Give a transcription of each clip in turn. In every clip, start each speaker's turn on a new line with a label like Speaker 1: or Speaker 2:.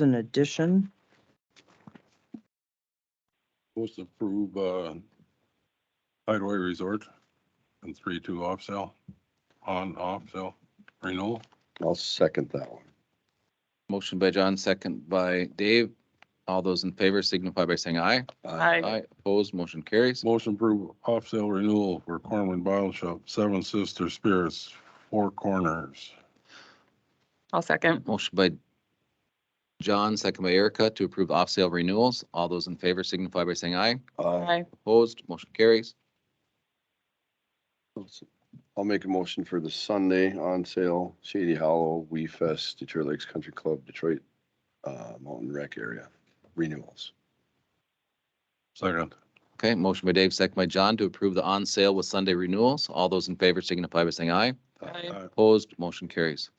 Speaker 1: an addition.
Speaker 2: Supposed to approve, uh, Hideaway Resort and three, two off sale, on, off sale, renewal.
Speaker 3: I'll second that one.
Speaker 4: Motion by John, second by Dave. All those in favor signify by saying aye. Aye. Opposed, motion carries.
Speaker 2: Motion approve off sale renewal for Corman Bottle Shop, Seven Sister Spirits, Four Corners.
Speaker 5: I'll second.
Speaker 4: Motion by John, second by Erica to approve off-sale renewals. All those in favor signify by saying aye.
Speaker 3: Aye.
Speaker 5: Aye.
Speaker 4: Opposed, motion carries.
Speaker 3: I'll make a motion for the Sunday on sale, Shady Hollow, We Fest, Detroit Lakes Country Club, Detroit, uh, Mountain Rec area renewals.
Speaker 2: Second.
Speaker 4: Okay, motion by Dave, second by John to approve the on-sale with Sunday renewals. All those in favor signify by saying aye.
Speaker 5: Aye.
Speaker 4: Opposed, motion carries.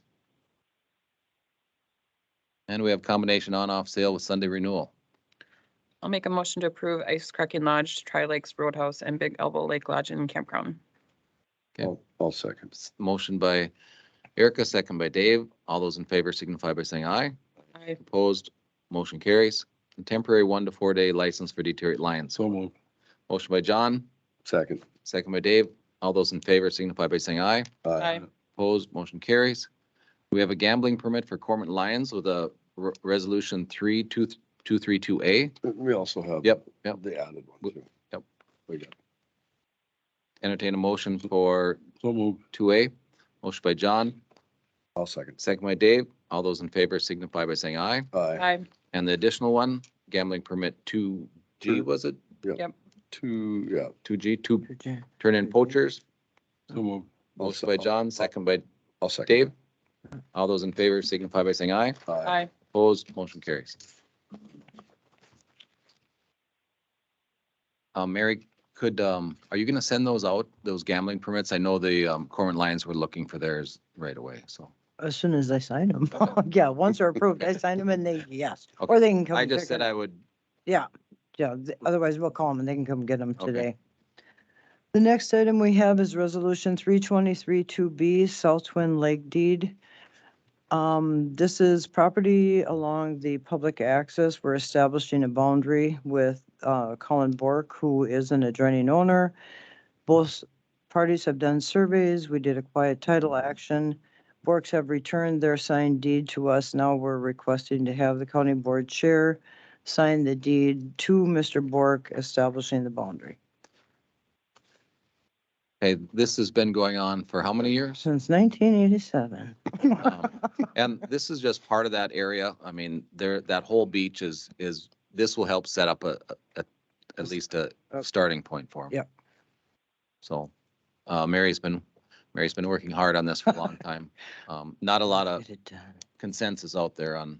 Speaker 4: And we have combination on-off sale with Sunday renewal.
Speaker 5: I'll make a motion to approve Ice Cracking Lodge, Tri Lakes Roadhouse, and Big Elbow Lake Lodge and Campground.
Speaker 4: Okay.
Speaker 3: I'll, I'll second.
Speaker 4: S- Motion by Erica, second by Dave. All those in favor signify by saying aye.
Speaker 5: Aye.
Speaker 4: Opposed, motion carries. Temporary one to four day license for Detroit Lions.
Speaker 2: So moved.
Speaker 4: Motion by John,
Speaker 3: Second.
Speaker 4: second by Dave. All those in favor signify by saying aye.
Speaker 3: Uh,
Speaker 5: Aye.
Speaker 4: Opposed, motion carries. We have a gambling permit for Cormorant Lions with a re- resolution three two, two three two A.
Speaker 3: We also have.
Speaker 4: Yep, yep.
Speaker 3: The added one too.
Speaker 4: Yep.
Speaker 3: We got
Speaker 4: Entertain a motion for
Speaker 2: So moved.
Speaker 4: two A. Motion by John,
Speaker 3: I'll second.
Speaker 4: second by Dave. All those in favor signify by saying aye.
Speaker 3: Aye.
Speaker 5: Aye.
Speaker 4: And the additional one, gambling permit two G,
Speaker 3: Two.
Speaker 4: was it?
Speaker 3: Two, yeah.
Speaker 4: Two G, two turn-in poachers.
Speaker 2: So moved.
Speaker 3: I'll
Speaker 4: Motion
Speaker 3: se-
Speaker 4: by
Speaker 3: I'll-
Speaker 4: John, second by
Speaker 3: I'll second.
Speaker 4: Dave. All those in favor signify by saying aye.
Speaker 3: Aye.
Speaker 5: Aye.
Speaker 4: Opposed, motion carries. Uh, Mary, could, um, are you gonna send those out, those gambling permits? I know the, um, Cormorant Lions were looking for theirs right away, so.
Speaker 1: As soon as I sign them. Yeah, once they're approved, I sign them and they, yes, or they can come.
Speaker 4: I
Speaker 1: and
Speaker 4: just
Speaker 1: pick
Speaker 4: said
Speaker 1: it.
Speaker 4: I would,
Speaker 1: Yeah, yeah, th- otherwise we'll call them and they can come get them
Speaker 4: Okay.
Speaker 1: today. The next item we have is resolution three twenty-three two B, South Twin Lake deed. Um, this is property along the public access. We're establishing a boundary with, uh, Colin Bork, who is an adjoining owner. Both parties have done surveys. We did a quiet title action. Borks have returned their signed deed to us. Now we're requesting to have the county board chair sign the deed to Mr. Bork establishing the boundary
Speaker 4: hey, this has been going on for how many years?
Speaker 1: since 1987.
Speaker 4: Um, And this is just part of that area. I mean, there, that whole beach is, is, this will help set up a, a- a, at least a
Speaker 1: Uh,
Speaker 4: starting point for them.
Speaker 1: yep.
Speaker 4: So, uh, Mary's been, Mary's been working hard on this for a long time. Um, not a lot of
Speaker 1: Get it done.
Speaker 4: consensus out there on,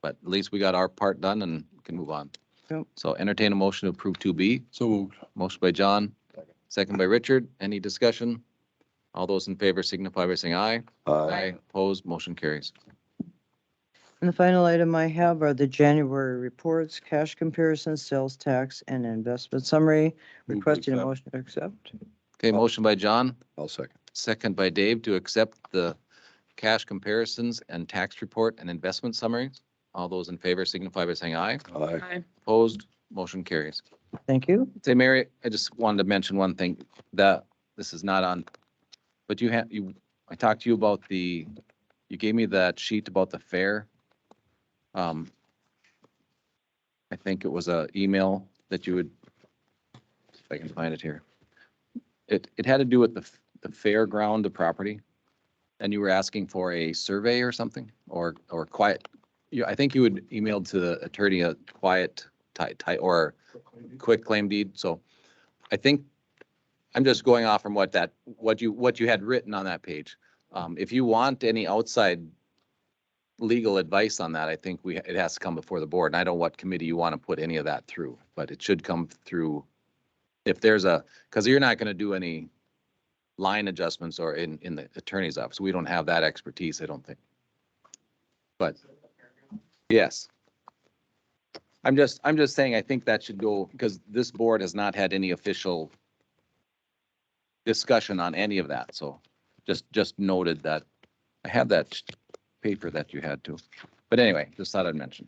Speaker 4: but at least we got our part done and can move on.
Speaker 1: Yep.
Speaker 4: So entertain a motion to approve two B.
Speaker 2: So moved.
Speaker 4: Motion by John, second by Richard. Any discussion? All those in favor signify by saying aye.
Speaker 3: Aye.
Speaker 4: Opposed, motion carries.
Speaker 1: And the final item I have are the January reports, cash comparison, sales tax, and investment summary.
Speaker 2: Move to
Speaker 1: Requesting a
Speaker 2: accept.
Speaker 1: motion to accept.
Speaker 4: Okay, motion by John,
Speaker 3: I'll second.
Speaker 4: second by Dave to accept the cash comparisons and tax report and investment summaries. All those in favor signify by saying aye.
Speaker 3: Aye.
Speaker 5: Aye.
Speaker 4: Opposed, motion carries.
Speaker 1: Thank you.
Speaker 4: Say, Mary, I just wanted to mention one thing that this is not on, but you have, you, I talked to you about the, you gave me that sheet about the fair. Um, I think it was a email that you would, if I can find it here. It, it had to do with the, f- the fairground, the property. And you were asking for a survey or something or, or quiet. You, I think you had emailed to the attorney a quiet tight, tight, or quick claim deed, so I think, I'm just going off from what that, what you, what you had written on that page. Um, if you want any outside legal advice on that, I think we, it has to come before the board, and I don't know what committee you want to put any of that through, but it should come through. If there's a, because you're not going to do any line adjustments or in, in the attorney's office, we don't have that expertise, I don't think. But, yes. I'm just, I'm just saying, I think that should go, because this board has not had any official discussion on any of that, so just, just noted that, I had that paper that you had too. But anyway, just thought I'd mention.